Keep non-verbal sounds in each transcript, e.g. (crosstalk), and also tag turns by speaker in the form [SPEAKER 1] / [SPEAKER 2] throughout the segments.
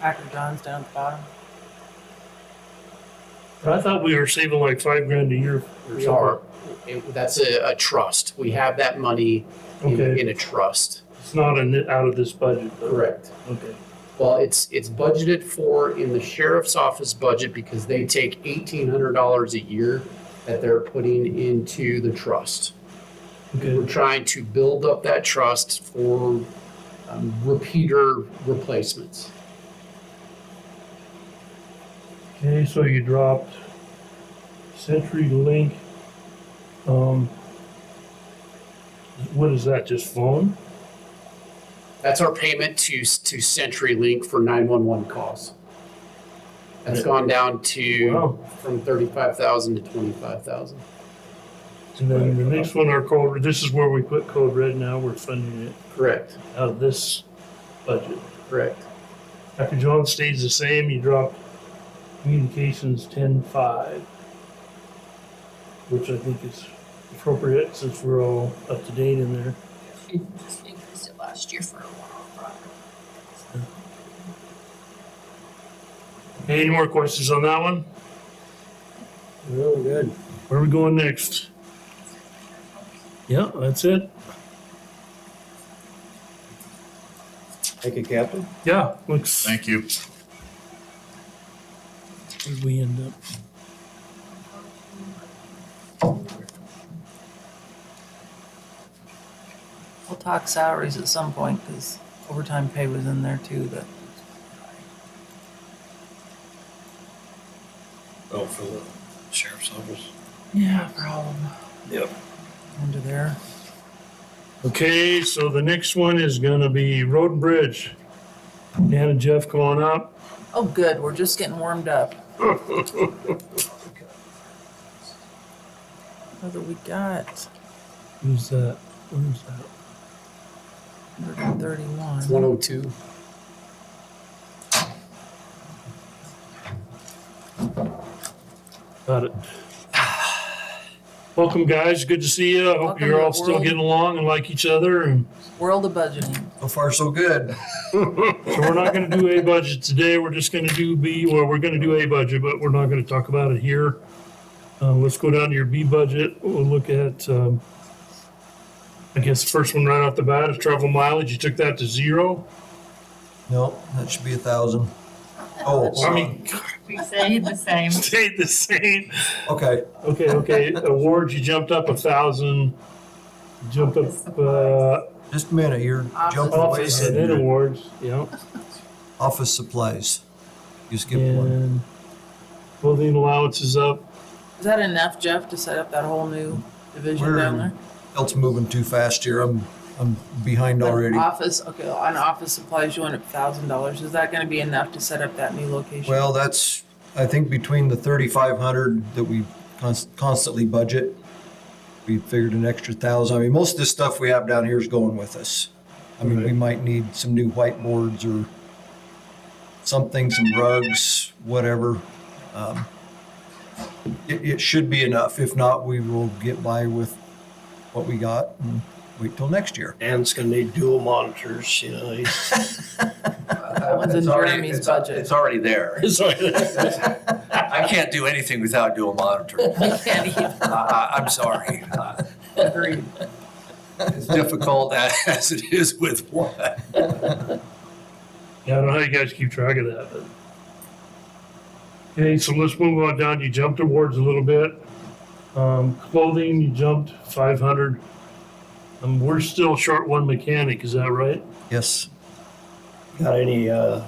[SPEAKER 1] Pack of Johns down at the bottom.
[SPEAKER 2] I thought we were saving like five grand a year or
[SPEAKER 3] We are,
[SPEAKER 2] something.
[SPEAKER 3] it- that's a, a trust. We have that money in,
[SPEAKER 2] Okay,
[SPEAKER 3] in a trust.
[SPEAKER 2] it's not in, the- out of this budget. though.
[SPEAKER 3] Correct.
[SPEAKER 2] Okay,
[SPEAKER 3] Well, it's, it's budgeted for in the sheriff's office budget because they take eighteen hundred dollars a year that they're putting into the trust. We're
[SPEAKER 2] okay,
[SPEAKER 3] trying to build up that trust for um, repeater replacements.
[SPEAKER 2] okay, so you dropped CenturyLink. Um, what is that, just phone?
[SPEAKER 3] That's our payment to, to CenturyLink for 911 calls. That's gone down to,
[SPEAKER 2] Wow.
[SPEAKER 3] from 35,000 to 25,000.
[SPEAKER 2] And then the next one, our code, this is where we put code red now, we're funding it
[SPEAKER 3] Correct,
[SPEAKER 2] out of this budget.
[SPEAKER 3] correct.
[SPEAKER 2] Dr. John stays the same, you drop communications ten five. Which I think is appropriate since we're all up to date in there.
[SPEAKER 4] We just increased it last year for a while.
[SPEAKER 2] Any more questions on that one?
[SPEAKER 5] Really good.
[SPEAKER 2] Where are we going next? Yeah, that's it.
[SPEAKER 5] Thank you, Captain.
[SPEAKER 2] Yeah, looks,
[SPEAKER 6] Thank you.
[SPEAKER 2] where'd we end up?
[SPEAKER 1] We'll talk salaries at some point because overtime pay was in there too. But
[SPEAKER 5] Oh, for the sheriff's office.
[SPEAKER 1] yeah, problem.
[SPEAKER 5] Yep.
[SPEAKER 1] Under there.
[SPEAKER 2] Okay, so the next one is gonna be Road and Bridge. Dan and Jeff, come on up.
[SPEAKER 1] Oh, good. We're just getting warmed
[SPEAKER 5] (laughs)
[SPEAKER 1] up. What do we got?
[SPEAKER 2] Who's that? Who's that?
[SPEAKER 1] 131.
[SPEAKER 3] 102.
[SPEAKER 2] Got it. Welcome, guys. Good to see you. I hope
[SPEAKER 1] Welcome
[SPEAKER 2] you're all
[SPEAKER 1] to the
[SPEAKER 2] still
[SPEAKER 1] world.
[SPEAKER 2] getting along and like each other. And
[SPEAKER 1] World of budgeting.
[SPEAKER 5] So far, so good.
[SPEAKER 2] so we're not going to do a budget today. We're just going to do B. Well, we're going to do a budget, but we're not going to talk about it here. Uh, let's go down to your B budget. We'll look at, um, I guess, the first one right off the bat is travel mileage. You took that to zero. (laughs)
[SPEAKER 5] No, that should be a thousand. Oh, hold
[SPEAKER 2] I
[SPEAKER 5] on.
[SPEAKER 2] mean,
[SPEAKER 4] We stayed the same.
[SPEAKER 2] stayed the same.
[SPEAKER 5] okay.
[SPEAKER 2] Okay, okay.
[SPEAKER 1] (laughs)
[SPEAKER 2] Awards, you jumped up a thousand. Jumped up uh,
[SPEAKER 5] Just a minute. You're jumping away.
[SPEAKER 2] office and then
[SPEAKER 5] here.
[SPEAKER 2] awards. Yeah.
[SPEAKER 5] Office supplies. You skipped one.
[SPEAKER 2] And clothing allowance is up.
[SPEAKER 1] Is that enough, Jeff, to set up that whole new division
[SPEAKER 5] We're
[SPEAKER 1] down there?
[SPEAKER 5] Elt's moving too fast here. I'm I'm behind
[SPEAKER 1] But
[SPEAKER 5] already.
[SPEAKER 1] Office, okay, on office supplies, you went up thousand dollars. Is that gonna be enough to set up that new location?
[SPEAKER 5] Well, that's I think between the thirty-five hundred that we const- constantly budget, we figured an extra thousand. I mean, most of the stuff we have down here is going with us. I mean, we
[SPEAKER 2] Right.
[SPEAKER 5] might need some new whiteboards or something, some rugs, whatever. Um, it, it should be enough. If not, we will get by with what we got and wait till next year.
[SPEAKER 7] Dan's gonna need dual monitors, you know, (laughs) he's.
[SPEAKER 1] That one's in
[SPEAKER 8] It's already-
[SPEAKER 1] Jeremy's
[SPEAKER 8] it's-
[SPEAKER 1] budget.
[SPEAKER 8] It's already there. I can't do anything without
[SPEAKER 1] (laughs)
[SPEAKER 8] dual monitoring. I
[SPEAKER 1] can't either.
[SPEAKER 8] I- I'm sorry. Uh,
[SPEAKER 1] Agreed.
[SPEAKER 8] It's difficult (laughs) as it is with one.
[SPEAKER 2] (laughs) Yeah, I don't know how you guys keep track of that. But. Okay, so let's move on down. You jumped awards a little bit. Um, clothing, you jumped 500. Um, we're still short one mechanic, is that right?
[SPEAKER 5] Yes.
[SPEAKER 7] Got any, uh,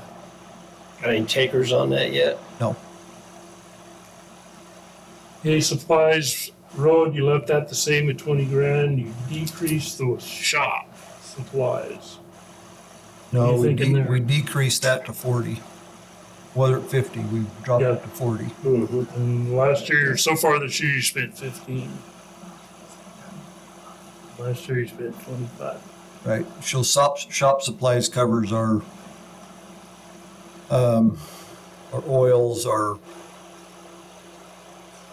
[SPEAKER 7] got any takers on that yet?
[SPEAKER 2] Okay, supplies, road, you left that the same at 20 grand. You decreased the shop supplies.
[SPEAKER 5] No,
[SPEAKER 2] you
[SPEAKER 5] we,
[SPEAKER 2] thinking
[SPEAKER 5] de-
[SPEAKER 2] there?
[SPEAKER 5] we decreased that to forty. Whether at fifty, we dropped
[SPEAKER 2] Yeah.
[SPEAKER 5] it to forty.
[SPEAKER 7] Mm-hmm.
[SPEAKER 2] And last year, so far this year, you spent 15. Last year, you spent 25.
[SPEAKER 5] Right. She'll shop shop supplies covers our um, our oils, our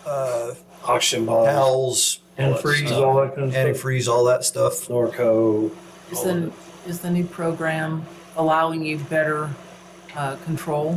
[SPEAKER 5] uh,
[SPEAKER 7] Auction ball,
[SPEAKER 5] towels,
[SPEAKER 2] And freeze, all that kind of stuff.
[SPEAKER 5] antifreeze, all that stuff.
[SPEAKER 7] Norco.
[SPEAKER 1] Is
[SPEAKER 7] all of
[SPEAKER 1] the,
[SPEAKER 7] it.
[SPEAKER 1] is the new program allowing you better uh, control.